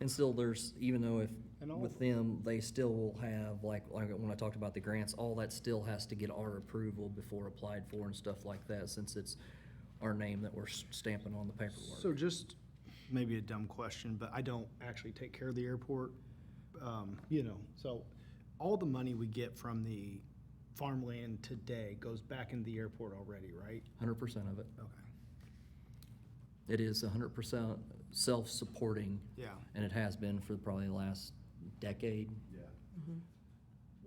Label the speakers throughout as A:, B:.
A: And still, there's, even though if,
B: And all-
A: with them, they still will have, like, like when I talked about the grants, all that still has to get our approval before applied for and stuff like that, since it's our name that we're s- stamping on the
B: So
A: paperwork.
B: just, maybe a dumb question, but I don't actually take care of the airport, um, you know, so all the money we get from the farmland today goes back into the airport already, right?
A: Hundred percent of it.
B: Okay.
A: It is hundred percent self-supporting,
B: Yeah,
A: and it has been for probably the last decade.
C: Yeah.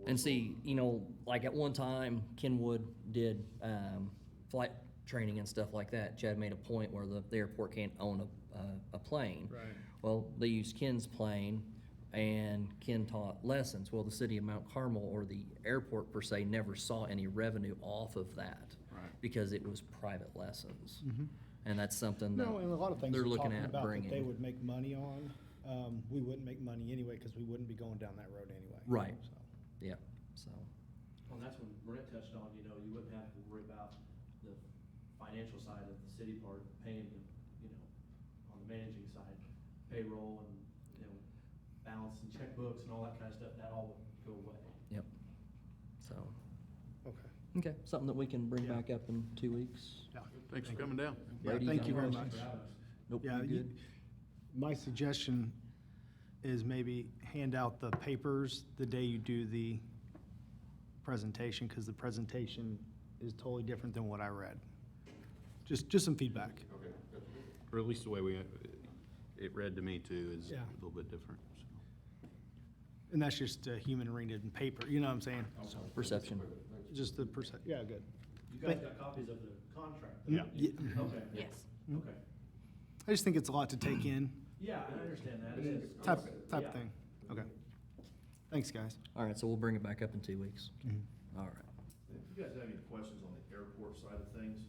A: And see, you know, like at one time, Kenwood did um, flight training and stuff like that. Chad made a point where the, the airport can't own a, uh, a plane.
B: right.
A: Well, they used Ken's plane, and Ken taught lessons. Well, the city of Mount Carmel or the airport per se never saw any revenue off of that
B: Right.
A: because it was private lessons,
B: Mhm.
A: and that's something that
B: No, and a lot of things
A: they're
B: we're
A: looking
B: talking
A: at
B: about that
A: bringing.
B: they would make money on, um, we wouldn't make money anyway, cause we wouldn't be going down that road anyway.
A: Right.
B: So,
A: yeah. So
D: Well, that's when Brent touched on, you know, you wouldn't have to worry about the financial side of the city part, paying the, you know, on the managing side, payroll and, you know, balance and checkbooks and all that kind of stuff, that all would go away.
A: yep. So
B: Okay.
A: okay, something that we can bring back up in two weeks.
C: Thanks for coming down.
B: Yeah,
A: Brady,
B: thank you very
A: got
B: much.
A: a question? Nope.
B: Yeah,
A: you
B: you-
A: good?
B: My suggestion is maybe hand out the papers the day you do the presentation, because the presentation is totally different than what I read. Just, just some feedback.
C: Or at least the way we, uh, it read to me too, is a
B: Yeah.
C: little bit different. so.
B: And that's just a human reading in paper, you know what I'm saying? So,
A: Perception.
B: Just the percent, yeah, good.
D: You guys got copies of the contract?
B: Yeah.
D: though?
B: Yeah.
D: Okay.
E: Yes.
D: Okay.
B: I just think it's a lot to take in,
D: Yeah, I understand that. It's-
B: type,
D: yeah.
B: type thing. Okay. Thanks, guys.
A: All right, so we'll bring it back up in two weeks.
B: Mm-hmm.
A: All right.
F: If you guys have any questions on the airport side of things,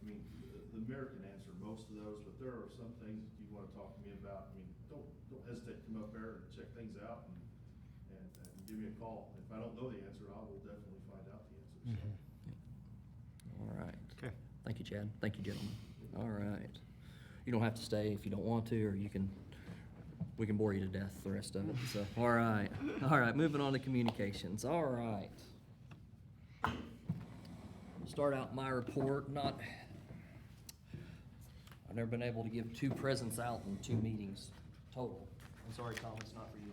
F: I mean, the- the mayor can answer most of those, but there are some things you wanna talk to me about. I mean, don't, don't hesitate to come up there and check things out and, and, and give me a call. If I don't know the answer, I will definitely find out the answer, so.
A: All right.
B: Okay.
A: Thank you, Chad. Thank you, gentlemen. All right. You don't have to stay if you don't want to, or you can, we can bore you to death the rest of it. So, all right. All right, moving on to communications. All right. Start out my report, not, I've never been able to give two presents out in two meetings total. I'm sorry, Tom, it's not for you.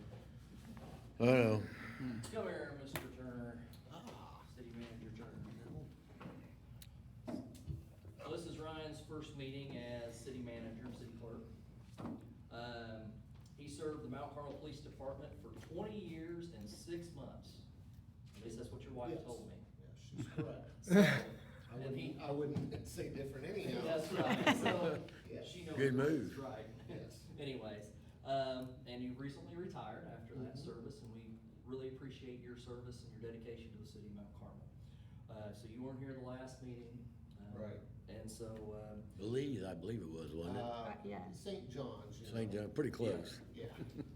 A: Hmm.
G: I know.
A: Come here, Mr. Turner. Ah. City Manager Turner. So Uh, this is Ryan's first meeting as city manager and city clerk. Um, he served the Mount Carmel Police Department for twenty years and six months. At least that's what your wife
G: Yes.
A: told me.
G: Yeah, she's correct.
A: So,
G: I
A: and he,
G: wouldn't, I wouldn't say different anyhow.
A: that's right, so
G: Yes.
A: she knows.
G: Good
A: what's
G: move.
A: Right.
G: Yes.
A: Anyways, um, and you recently retired after that
G: Mm-hmm.
A: service, and we really appreciate your service and your dedication to the city of Mount Carmel. Uh, so you weren't here the last meeting. um,
G: Right.
A: And so, um,
H: Belize, I believe it was, wasn't it?
G: Uh,
E: Yeah.
G: St. John's. you
H: St.
G: know.
H: John, pretty close.
G: Yeah.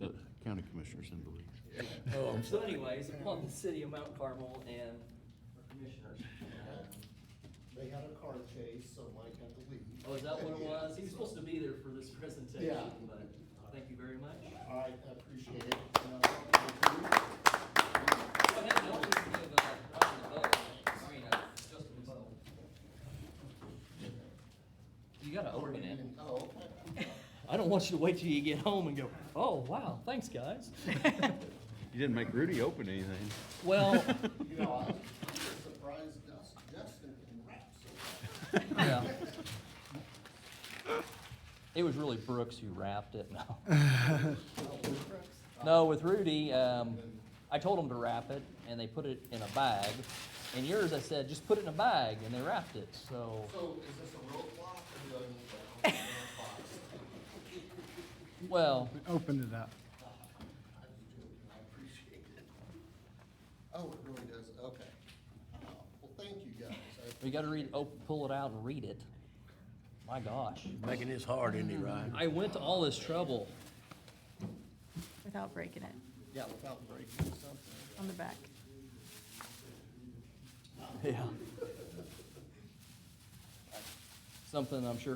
C: Uh, The County commissioners in Belize.
H: Oh, I'm
A: Um, So
H: sorry.
A: anyways, upon the city of Mount Carmel and our commissioners. um,
G: They had a car chase, so Mike had to leave.
A: Oh, is that what it
G: Yeah,
A: was? He was
G: so-
A: supposed to be there for this presentation,
G: Yeah.
A: but thank you very much.
G: All right, I appreciate it. Uh,
A: Well, that note is of, uh, Ryan the Bug, I mean, uh, Justin the Bug. You gotta open it.
G: Oh, okay.
A: I don't want you to wait till you get home and go, oh, wow, thanks, guys.
C: You didn't make Rudy open anything.
A: Well,
G: You know, I was surprised Dust- Justin can rap so well.
A: yeah. It was really Brooks who wrapped it, no. No, with Rudy, um, I told him to wrap it, and they put it in a bag. And yours, I said, just put it in a bag, and they wrapped it, so.
G: So is this a roadblock or do I need to open a box?
A: Well,
B: Open it up.
G: I was joking, I appreciate it. Oh, it really does, okay. Oh, Well, thank you guys. I-
A: we gotta read, oh, pull it out and read it. My gosh.
H: Making this hard, isn't he, Ryan?
A: I went to all this trouble.
E: Without breaking it
G: Yeah, without breaking something.
E: on the back.
A: Yeah. Something I'm sure